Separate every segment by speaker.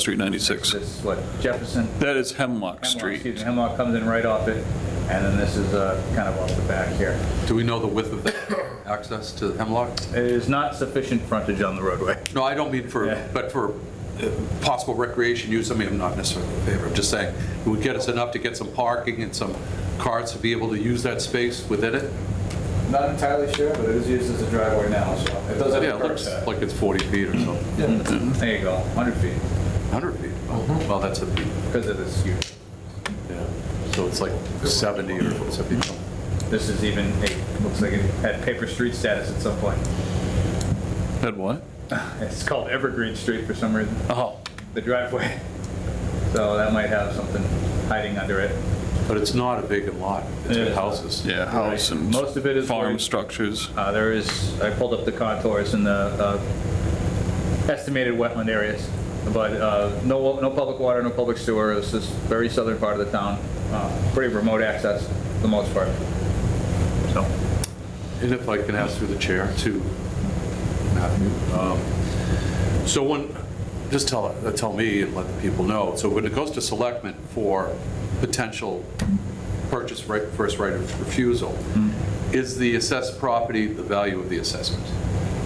Speaker 1: Street 96.
Speaker 2: This, what, Jefferson?
Speaker 1: That is Hemlock
Speaker 2: Hemlock, excuse me,
Speaker 1: Street.
Speaker 2: Hemlock comes in right off it, and then this is uh, kind of off the back here.
Speaker 3: Do we know the width of the access to Hemlock?
Speaker 2: It is not sufficient frontage on the roadway.
Speaker 3: No, I don't mean for,
Speaker 2: Yeah.
Speaker 3: but for uh, possible recreation use, I mean, I'm not necessarily in favor, I'm just saying, it would get us enough to get some parking and some cars to be able to use that space within it?
Speaker 2: Not entirely sure, but it is used as a driveway now, so it does have
Speaker 3: Yeah,
Speaker 2: a
Speaker 3: it
Speaker 2: curb
Speaker 3: looks
Speaker 2: cut.
Speaker 3: like it's 40 feet or so,
Speaker 2: There you go, 100 feet,
Speaker 3: 100 feet.
Speaker 1: Mm-hmm.
Speaker 3: Oh, Well, that's a peak,
Speaker 2: because of this huge.
Speaker 3: yeah. So it's like 70 or 70.
Speaker 2: This is even, it looks like it had paper street status at some point.
Speaker 1: That what?
Speaker 2: It's called Evergreen Street for some reason,
Speaker 1: Oh,
Speaker 2: the driveway. So that might have something hiding under it.
Speaker 3: But it's not a vacant lot, it's
Speaker 2: It
Speaker 3: got
Speaker 2: is.
Speaker 3: houses.
Speaker 1: yeah, house and
Speaker 2: Most of it is
Speaker 1: farm
Speaker 2: where-
Speaker 1: structures.
Speaker 2: Uh, There is, I pulled up the contours and the uh, estimated wetland areas, but uh, no, no public water, no public sewer, it's this very southern part of the town, Uh, pretty remote access for the most part. So,
Speaker 3: And if I can ask through the chair to Matthew, um, so when, just tell, uh, tell me and let the people know, so when it goes to selectmen for potential purchase right, first right of refusal, is the assessed property the value of the assessment?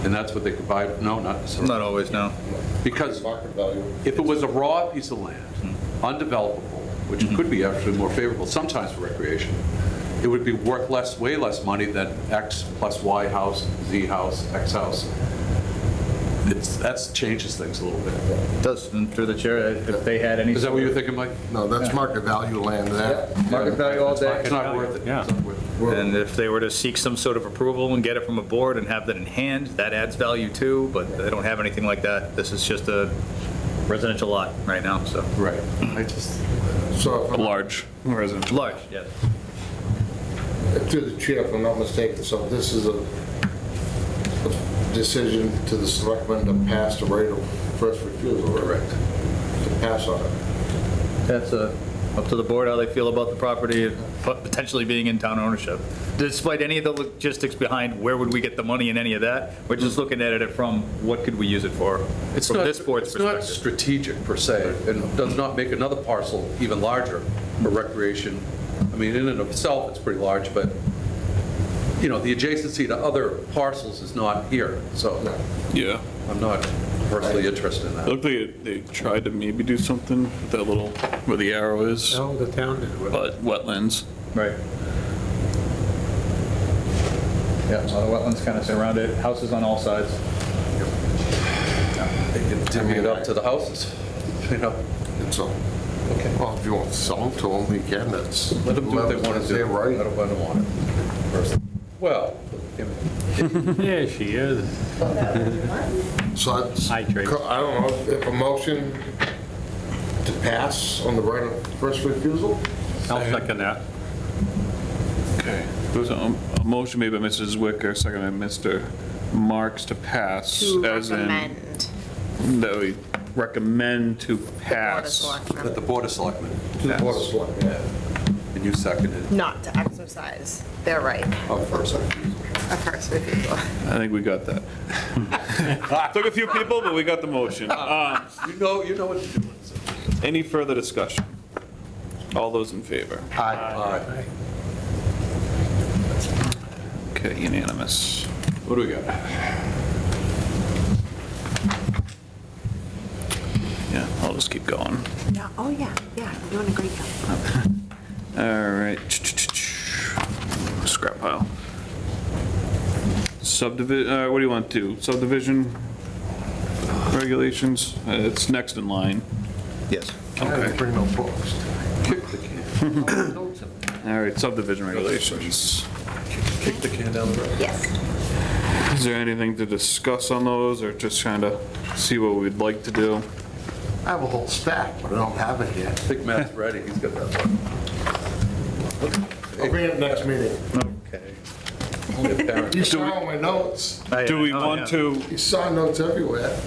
Speaker 3: And that's what they could buy, no, not necessarily.
Speaker 2: not always, no.
Speaker 3: Because if it was a raw piece of land, undevelopable, which could be actually more favorable sometimes for recreation, it would be worth less, way less money than X plus Y house, Z house, X house. It's, that's changes things a little bit.
Speaker 2: Does, and through the chair, if they had any.
Speaker 3: Is that what you're thinking, Mike?
Speaker 4: No, that's market value land there.
Speaker 2: Market value all day.
Speaker 3: It's not worth it.
Speaker 5: Yeah.
Speaker 3: It's not worth it.
Speaker 2: And if they were to seek some sort of approval and get it from a board and have that in hand, that adds value too, but they don't have anything like that. This is just a residential lot right now, so.
Speaker 3: Right. I just,
Speaker 4: So if I'm-
Speaker 1: Large residential.
Speaker 2: Large, yes.
Speaker 4: through the chair, if I'm not mistaken, so this is a a decision to the selectmen to pass the right of first refusal. Correct. To pass on it.
Speaker 2: That's uh, up to the board how they feel about the property pot- potentially being in town ownership. Despite any of the logistics behind where would we get the money and any of that, we're just looking at it from what could we use it for?
Speaker 3: it's
Speaker 2: from
Speaker 3: not,
Speaker 2: this board's
Speaker 3: it's not
Speaker 2: perspective.
Speaker 3: strategic per se, and does not make another parcel even larger for recreation. I mean, in and of itself, it's pretty large, but, you know, the adjacency to other parcels is not here, so
Speaker 1: Yeah.
Speaker 3: I'm not personally interested in
Speaker 1: It
Speaker 3: that.
Speaker 1: Looked like they tried to maybe do something with that little, where the arrow is,
Speaker 5: No, the town did with
Speaker 1: but
Speaker 5: it.
Speaker 1: wetlands.
Speaker 2: Right. Yeah, so the wetlands kind of surround it, houses on all sides.
Speaker 3: They can divvy it up to the houses, you know?
Speaker 4: And so, well, if you want to sell them to them, you can, that's.
Speaker 3: Let them do what they want to do.
Speaker 4: They're
Speaker 3: I
Speaker 4: right.
Speaker 3: don't, I don't want it. personally. Well, you know,
Speaker 5: Yeah, she is.
Speaker 4: So that's, I
Speaker 5: Hi, Tracy.
Speaker 4: don't know, if a motion to pass on the right of first refusal?
Speaker 5: I'll second that.
Speaker 1: Okay. There was a a motion made by Mrs. Wicker, second by Mr. Marks to pass,
Speaker 6: To
Speaker 1: as in,
Speaker 6: recommend
Speaker 1: that we recommend to
Speaker 6: Board of
Speaker 1: pass.
Speaker 3: at
Speaker 6: Selectmen
Speaker 3: the Board of Selectmen,
Speaker 4: To the board of selectmen.
Speaker 3: and you seconded
Speaker 6: not to exercise their right
Speaker 3: up first.
Speaker 6: of first refusal.
Speaker 1: I think we got that. Took a few people, but we got the motion. Um,
Speaker 3: You know, you know what to do. so.
Speaker 1: Any further discussion? All those in favor?
Speaker 3: All right,
Speaker 1: Okay, unanimous.
Speaker 3: what do we got?
Speaker 1: Yeah, I'll just keep going.
Speaker 6: Yeah, oh, yeah, yeah, you're doing a great job.
Speaker 1: All right. Scrap pile. Subdivision, uh, what do you want to do? Subdivision regulations? Uh, It's next in line.
Speaker 2: Yes.
Speaker 4: I bring no books.
Speaker 3: Kick the can.
Speaker 1: All right, subdivision regulations.
Speaker 3: Kick the can down the road.
Speaker 6: Yes.
Speaker 1: Is there anything to discuss on those or just trying to see what we'd like to do?
Speaker 4: I have a whole stack, but I don't have it yet.
Speaker 3: I think Matt's ready, he's got that
Speaker 4: I'll bring it next meeting.
Speaker 2: Okay.
Speaker 3: one.
Speaker 4: You saw all my notes.
Speaker 1: Do we
Speaker 2: Oh,
Speaker 1: want to
Speaker 4: You saw notes everywhere.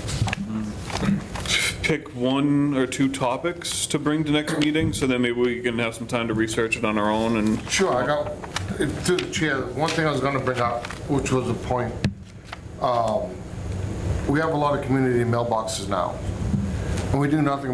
Speaker 1: pick one or two topics to bring to next meeting? So then maybe we can have some time to research it on our own and
Speaker 4: Sure, I got, through the chair, one thing I was gonna bring up, which was a point, um, we have a lot of community mailboxes now, and we do nothing